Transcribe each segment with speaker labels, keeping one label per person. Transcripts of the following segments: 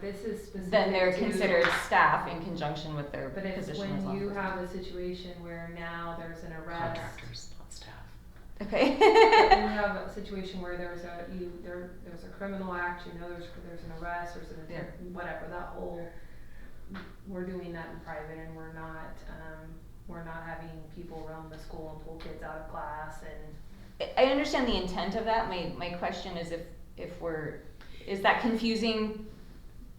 Speaker 1: this is specific
Speaker 2: then they're
Speaker 1: to-
Speaker 2: considered staff in conjunction with their
Speaker 1: But
Speaker 2: position
Speaker 1: it's
Speaker 2: as
Speaker 1: when
Speaker 2: law
Speaker 1: you
Speaker 2: enforcement.
Speaker 1: have a situation where now there's an arrest.
Speaker 3: Contractors, not staff.
Speaker 1: When
Speaker 2: Okay.
Speaker 1: you have a situation where there's a, you, there, there's a criminal act, you know, there's, there's an arrest, there's an,
Speaker 2: Yeah.
Speaker 1: whatever, that whole, we're doing that in private and we're not, um, we're not having people roam the school and pull kids out of class and
Speaker 2: I- I understand the intent of that. My, my question is if, if we're, is that confusing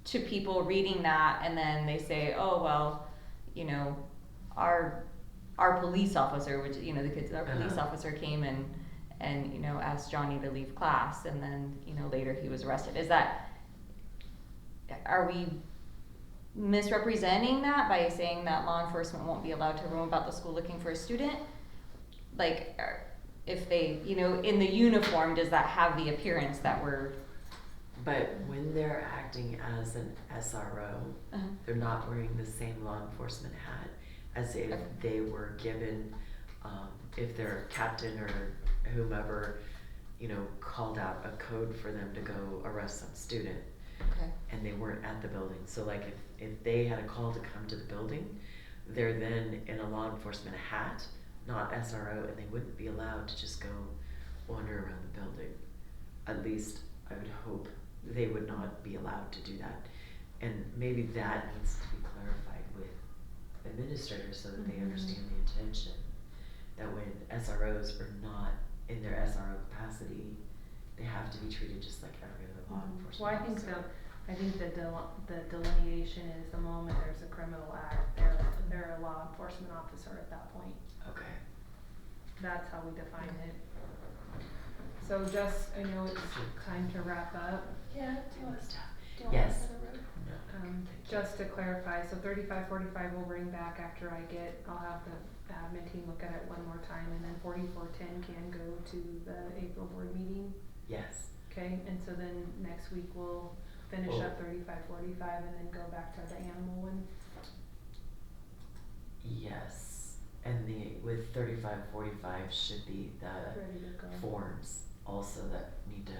Speaker 2: to people reading that and then they say, oh, well, you know, our, our police officer, which, you know, the kids, our police
Speaker 3: Uh-huh.
Speaker 2: officer came and, and, you know, asked Johnny to leave class and then, you know, later he was arrested. Is that, are we misrepresenting that by saying that law enforcement won't be allowed to roam about the school looking for a student? Like, are- if they, you know, in the uniform, does that have the appearance that we're?
Speaker 3: But when they're acting as an SRO,
Speaker 2: Uh-huh.
Speaker 3: they're not wearing the same law enforcement hat as if
Speaker 2: Okay.
Speaker 3: they were given, um, if their captain or whomever, you know, called out a code for them to go arrest some student
Speaker 2: Okay.
Speaker 3: and they weren't at the building. So like if, if they had a call to come to the building, they're then in a law enforcement hat, not SRO, and they wouldn't be allowed to just go wander around the building. At least I would hope they would not be allowed to do that. And maybe that needs to be clarified with administrators so that they
Speaker 2: Mhm.
Speaker 3: understand the intention. That when SROs are not in their SRO capacity, they have to be treated just like every other law
Speaker 1: Mhm.
Speaker 3: enforcement officer.
Speaker 1: Well, I think the, I think the del- the delineation is the moment there's a criminal act, they're, they're a law enforcement officer at that point.
Speaker 3: Okay.
Speaker 1: That's how we define it. So just, I know it's time to wrap up,
Speaker 4: Yeah,
Speaker 3: Doing this stuff.
Speaker 4: do you want
Speaker 3: Yes.
Speaker 4: us to road?
Speaker 1: um, just to clarify, so thirty-five, forty-five we'll bring back after I get, I'll have the admin team look at it one more time, and then forty-four, ten can go to the April board meeting.
Speaker 3: Yes.
Speaker 1: Okay, and so then next week we'll finish up
Speaker 3: Oh.
Speaker 1: thirty-five, forty-five, and then go back to the animal one.
Speaker 3: Yes. And the with 35, 45 should be
Speaker 1: Uh,
Speaker 3: the
Speaker 1: Ready to go.
Speaker 3: forms also that need to.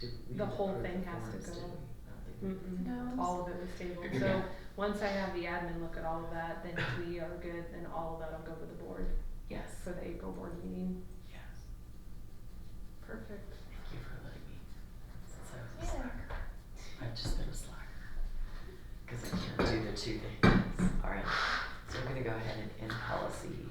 Speaker 3: Did we
Speaker 1: The whole
Speaker 3: approve
Speaker 1: thing
Speaker 3: the
Speaker 1: has to
Speaker 3: forms,
Speaker 1: go.
Speaker 3: did we? I don't think we-
Speaker 1: Mm-mm,
Speaker 4: No.
Speaker 1: all of it was tabled, so, once I have the admin look at all of that, then if we are good, then all of that'll go to the board
Speaker 3: Yes.
Speaker 1: for the April board meeting.
Speaker 3: Yes.
Speaker 1: Perfect.
Speaker 3: Thank you for letting me. Since I was a
Speaker 4: Yeah.
Speaker 3: slacker. I've just been a slacker. Because I can't do the two things. All right. So we're going to go ahead and end policy